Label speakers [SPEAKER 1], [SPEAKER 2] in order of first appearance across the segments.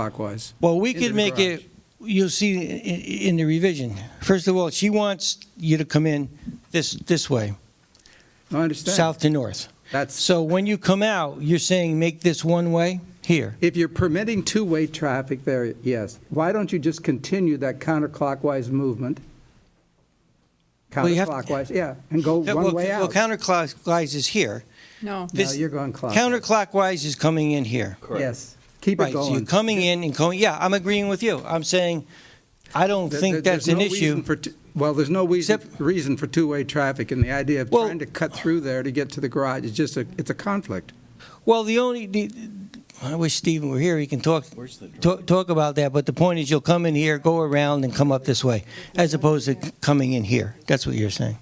[SPEAKER 1] counterclockwise.
[SPEAKER 2] Well, we
[SPEAKER 1] Into
[SPEAKER 2] could
[SPEAKER 1] the
[SPEAKER 2] make
[SPEAKER 1] garage.
[SPEAKER 2] it, you'll see i- i- in the revision. First of all, she wants you to come in this, this way,
[SPEAKER 1] I understand.
[SPEAKER 2] south to north.
[SPEAKER 1] That's,
[SPEAKER 2] So when you come out, you're saying make this one way here.
[SPEAKER 1] if you're permitting two-way traffic there, yes. Why don't you just continue that counterclockwise movement?
[SPEAKER 2] Well, you have to-
[SPEAKER 1] Counterclockwise, yeah, and go
[SPEAKER 2] Yeah,
[SPEAKER 1] one
[SPEAKER 2] well,
[SPEAKER 1] way
[SPEAKER 2] Well,
[SPEAKER 1] out.
[SPEAKER 2] counterclockwise is here.
[SPEAKER 3] No.
[SPEAKER 1] No,
[SPEAKER 2] this-
[SPEAKER 1] you're going clockwise.
[SPEAKER 2] Counterclockwise is coming in here.
[SPEAKER 1] Yes, keep it
[SPEAKER 2] Right, so you're
[SPEAKER 1] going.
[SPEAKER 2] coming in and going, yeah, I'm agreeing with you. I'm saying, I don't
[SPEAKER 1] There-
[SPEAKER 2] think
[SPEAKER 1] there-
[SPEAKER 2] that's
[SPEAKER 1] there's
[SPEAKER 2] an
[SPEAKER 1] no reason
[SPEAKER 2] issue.
[SPEAKER 1] for t- Well, there's no reason, reason for two-way traffic, and the idea of
[SPEAKER 2] Well-
[SPEAKER 1] trying to cut through there to get to the garage is just a, it's a conflict.
[SPEAKER 2] Well, the only, the- I wish Stephen were here, he can talk,
[SPEAKER 4] Where's the drive?
[SPEAKER 2] talk talk about that, but the point is you'll come in here, go around and come up this way, as opposed to coming in here. That's what you're saying.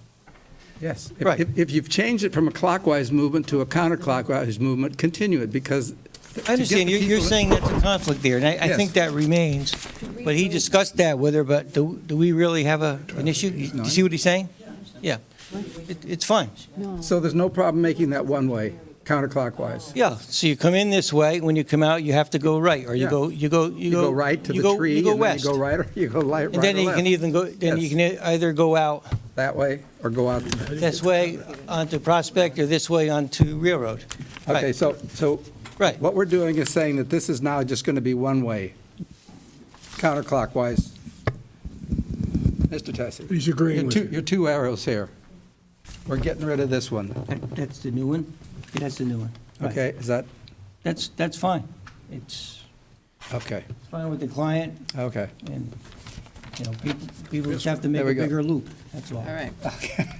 [SPEAKER 1] Yes.
[SPEAKER 2] Right.
[SPEAKER 1] If, if you've changed it from a clockwise movement to a counterclockwise movement, continue it, because
[SPEAKER 2] I understand, you're, you're saying that's a conflict there, and I, I
[SPEAKER 1] Yes.
[SPEAKER 2] think that remains. But he discussed that with her, but do, do we really have a, an issue? You see what he's saying? Yeah, it, it's fine.
[SPEAKER 1] So there's no problem making that one way counterclockwise?
[SPEAKER 2] Yeah, so you come in this way, when you come out, you have to go right, or you
[SPEAKER 1] Yeah.
[SPEAKER 2] go, you go, you
[SPEAKER 1] You
[SPEAKER 2] go.
[SPEAKER 1] go right to
[SPEAKER 2] you
[SPEAKER 1] the
[SPEAKER 2] go-
[SPEAKER 1] tree,
[SPEAKER 2] You
[SPEAKER 1] and
[SPEAKER 2] go
[SPEAKER 1] then you
[SPEAKER 2] west.
[SPEAKER 1] go right, or you go li-
[SPEAKER 2] And
[SPEAKER 1] right
[SPEAKER 2] then
[SPEAKER 1] or
[SPEAKER 2] you can
[SPEAKER 1] left,
[SPEAKER 2] even go, then you
[SPEAKER 1] Yes.
[SPEAKER 2] can e- either go out
[SPEAKER 1] that way, or go out.
[SPEAKER 2] this way onto Prospect or this way onto Railroad.
[SPEAKER 1] Okay,
[SPEAKER 2] Right.
[SPEAKER 1] so, so
[SPEAKER 2] Right,
[SPEAKER 1] what we're doing is saying that this is now just going to be one way, counterclockwise. Mr. Tessie,
[SPEAKER 5] He's agreeing
[SPEAKER 1] your
[SPEAKER 5] with
[SPEAKER 1] two,
[SPEAKER 5] you.
[SPEAKER 1] your two arrows here. We're getting rid of this one,
[SPEAKER 2] That- that's the new one, that's the new one. Right.
[SPEAKER 1] okay? Is that,
[SPEAKER 2] That's, that's fine. It's
[SPEAKER 1] okay,
[SPEAKER 2] it's fine with the client
[SPEAKER 1] okay.
[SPEAKER 2] and, you know, people, people just have to make
[SPEAKER 1] There we
[SPEAKER 2] a
[SPEAKER 1] go.
[SPEAKER 2] bigger loop, that's all.
[SPEAKER 3] All right.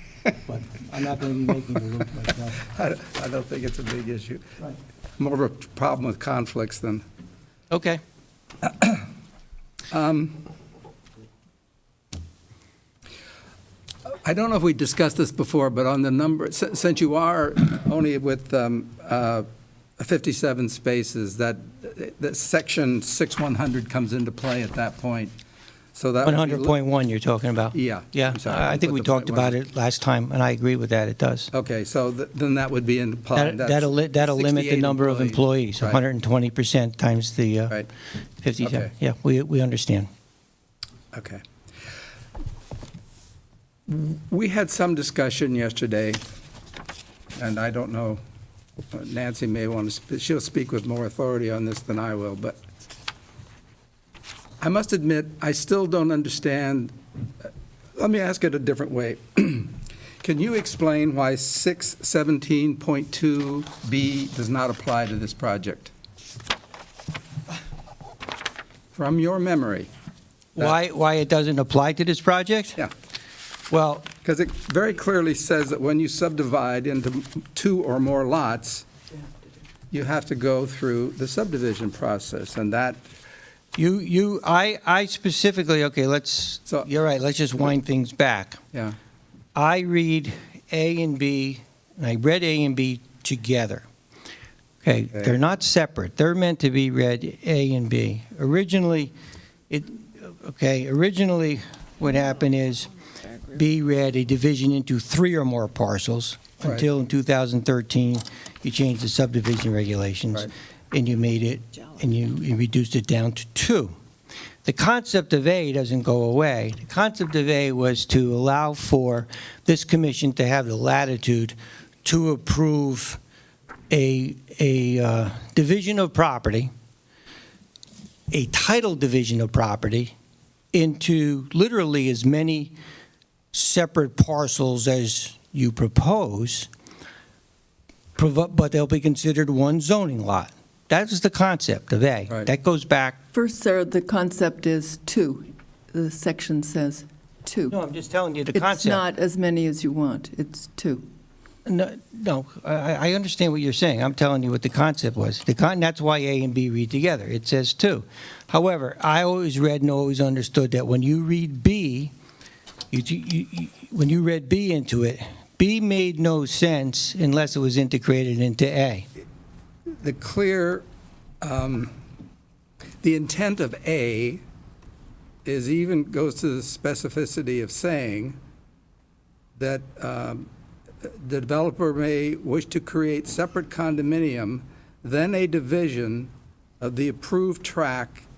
[SPEAKER 2] But I'm not going to be making the loop myself.
[SPEAKER 1] I don't- I don't think it's a big issue.
[SPEAKER 2] Right.
[SPEAKER 1] More of a problem with conflicts than.
[SPEAKER 2] Okay.
[SPEAKER 1] I don't know if we discussed this before, but on the number, si- since you are only with um, uh, 57 spaces, that, that section 6100 comes into play at that point. So that. would be-
[SPEAKER 2] 100.1 you're talking about?
[SPEAKER 1] Yeah.
[SPEAKER 2] Yeah,
[SPEAKER 1] I'm sorry,
[SPEAKER 2] I I think we
[SPEAKER 1] put the
[SPEAKER 2] talked
[SPEAKER 1] point one. Uh,
[SPEAKER 2] about it last time, and I agree with that, it does.
[SPEAKER 1] Okay, so th- then that would be in play.
[SPEAKER 2] That- That'll, li- that'll limit the number of employees,
[SPEAKER 1] Right.
[SPEAKER 2] 120% times the uh,
[SPEAKER 1] Right.
[SPEAKER 2] 50,
[SPEAKER 1] Okay.
[SPEAKER 2] yeah, we, we understand.
[SPEAKER 1] Okay. We had some discussion yesterday, and I don't know, Nancy may want to, sp- she'll speak with more authority on this than I will, but I must admit, I still don't understand, uh, let me ask it a different way. Can you explain why 617.2B does not apply to this project? From your memory, That-
[SPEAKER 2] Why, why it doesn't apply to this project?
[SPEAKER 1] yeah.
[SPEAKER 2] Well,
[SPEAKER 1] Because it very clearly says that when you subdivide into two or more lots, you have to go through the subdivision process, and that,
[SPEAKER 2] you, you, I, I specifically, okay, let's,
[SPEAKER 1] So-
[SPEAKER 2] you're right, let's just wind things back.
[SPEAKER 1] yeah,
[SPEAKER 2] I read A and B, and I read A and B together. Okay,
[SPEAKER 1] Okay.
[SPEAKER 2] they're not separate. They're meant to be read A and B. Originally, it, okay, originally, what happened is B read a division into three or more parcels
[SPEAKER 1] Right.
[SPEAKER 2] until in 2013, you changed the subdivision regulations
[SPEAKER 1] Right.
[SPEAKER 2] and you made it, and you you reduced it down to two. The concept of A doesn't go away. The concept of A was to allow for this commission to have the latitude to approve a, a uh, division of property, a title division of property, into literally as many separate parcels as you propose, provo- but they'll be considered one zoning lot. That is the concept of A.
[SPEAKER 1] Right.
[SPEAKER 2] That goes back
[SPEAKER 3] First, sir, the concept is two. The section says two.
[SPEAKER 2] No, I'm just telling you the
[SPEAKER 3] It's
[SPEAKER 2] concept.
[SPEAKER 3] not as many as you want. It's two.
[SPEAKER 2] No, no, I, I understand what you're saying. I'm telling you what the concept was. The con, that's why A and B read together. It says two. However, I always read and always understood that when you read B, you, you, you, when you read B into it, B made no sense unless it was integrated into A.
[SPEAKER 1] the clear, um, the intent of A is even, goes to the specificity of saying that um, the developer may wish to create separate condominium, then a division, uh, the approved track